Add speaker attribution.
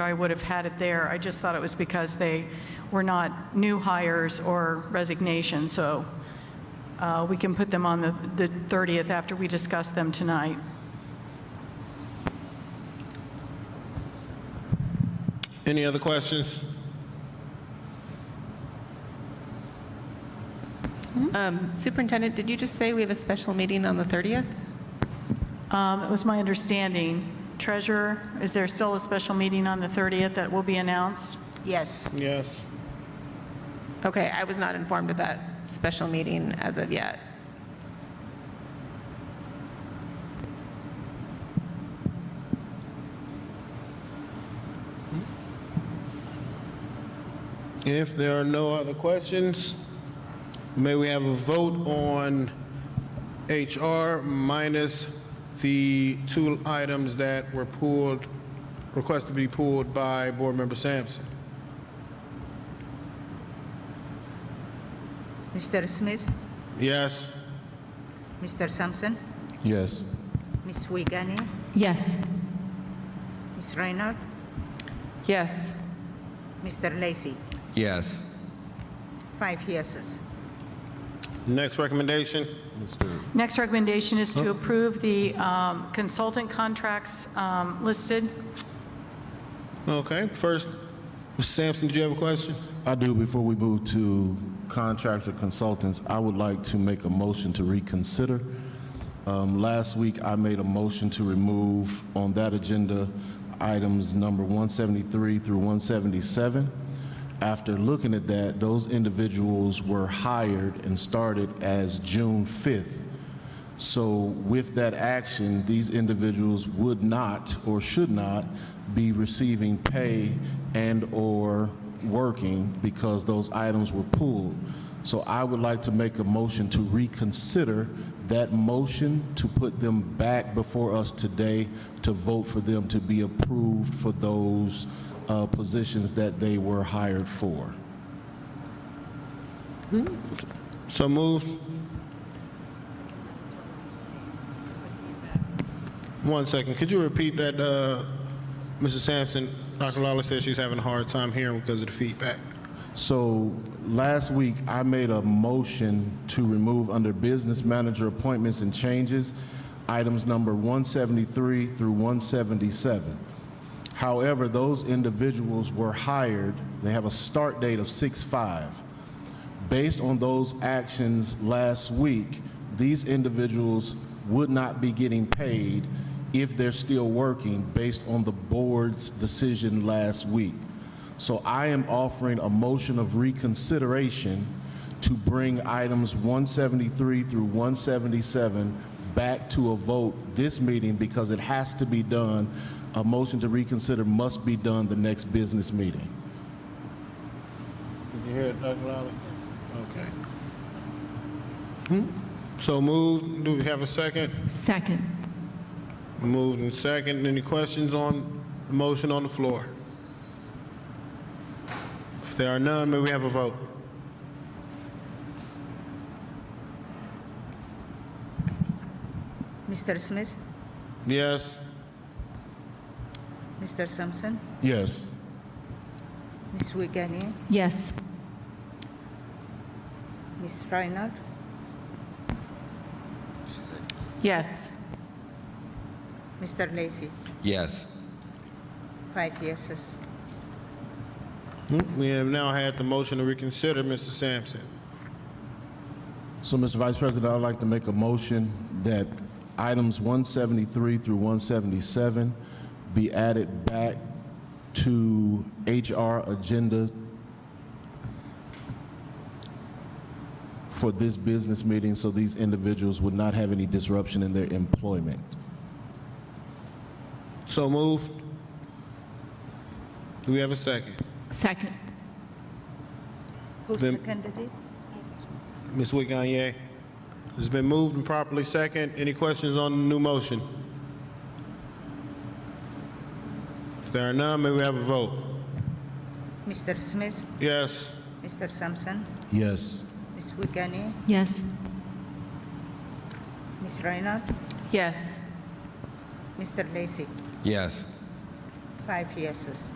Speaker 1: I would have had it there. I just thought it was because they were not new hires or resignation, so uh, we can put them on the the 30th after we discuss them tonight.
Speaker 2: Any other questions?
Speaker 3: Um, Superintendent, did you just say we have a special meeting on the 30th?
Speaker 1: Um, It was my understanding. Treasurer, is there still a special meeting on the 30th that will be announced?
Speaker 4: Yes,
Speaker 2: Yes.
Speaker 3: Okay, I was not informed of that special meeting as of yet.
Speaker 2: If there are no other questions, may we have a vote on HR minus the two items that were pulled, requested to be pulled by Board Member Sampson?
Speaker 4: Mr. Smith,
Speaker 2: Yes?
Speaker 4: Mr. Sampson,
Speaker 2: Yes.
Speaker 4: Ms. Wiegany,
Speaker 5: Yes.
Speaker 4: Ms. Reinhardt,
Speaker 3: Yes.
Speaker 4: Mr. Lacy.
Speaker 6: Yes.
Speaker 4: Five yeses.
Speaker 2: Next recommendation?
Speaker 1: Next recommendation is to approve the um, consultant contracts um, listed.
Speaker 2: Okay, first, Mr. Sampson, did you have a question?
Speaker 7: I do, before we move to contracts or consultants, I would like to make a motion to reconsider. Um, Last week, I made a motion to remove on that agenda items number 173 through 177. After looking at that, those individuals were hired and started as June 5th. So with that action, these individuals would not or should not be receiving pay and/or working because those items were pulled. So I would like to make a motion to reconsider that motion to put them back before us today to vote for them to be approved for those uh, positions that they were hired for.
Speaker 2: So moved? One second, could you repeat that, uh, Mrs. Sampson? Dr. Lawler says she's having a hard time hearing because of the feedback.
Speaker 7: So last week, I made a motion to remove under business manager appointments and changes, items number 173 through 177. However, those individuals were hired, they have a start date of 6/5. Based on those actions last week, these individuals would not be getting paid if they're still working based on the board's decision last week. So I am offering a motion of reconsideration to bring items 173 through 177 back to a vote this meeting because it has to be done. A motion to reconsider must be done the next business meeting.
Speaker 2: Did you hear it, Dr. Lally? Yes. Okay. Hmm? So moved, do we have a second?
Speaker 5: Second.
Speaker 2: Moved and second, any questions on the motion on the floor? If there are none, may we have a vote?
Speaker 4: Mr. Smith,
Speaker 2: Yes?
Speaker 4: Mr. Sampson,
Speaker 7: Yes.
Speaker 4: Ms. Wiegany,
Speaker 5: Yes.
Speaker 4: Ms. Reinhardt,
Speaker 3: Yes.
Speaker 4: Mr. Lacy.
Speaker 6: Yes.
Speaker 4: Five yeses.
Speaker 2: We have now had the motion to reconsider, Mr. Sampson.
Speaker 7: So, Mr. Vice President, I'd like to make a motion that items 173 through 177 be added back to HR agenda for this business meeting, so these individuals would not have any disruption in their employment.
Speaker 2: So moved. Do we have a second?
Speaker 5: Second.
Speaker 4: Who
Speaker 2: Then-
Speaker 4: seconded it?
Speaker 2: Ms. Wiggany? It's been moved and properly second. Any questions on the new motion? If there are none, may we have a vote?
Speaker 4: Mr. Smith,
Speaker 2: Yes.
Speaker 4: Mr. Sampson,
Speaker 7: Yes.
Speaker 4: Ms. Wiegany,
Speaker 5: Yes.
Speaker 4: Ms. Reinhardt,
Speaker 3: Yes.
Speaker 4: Mr. Lacy.
Speaker 6: Yes.
Speaker 4: Five yeses.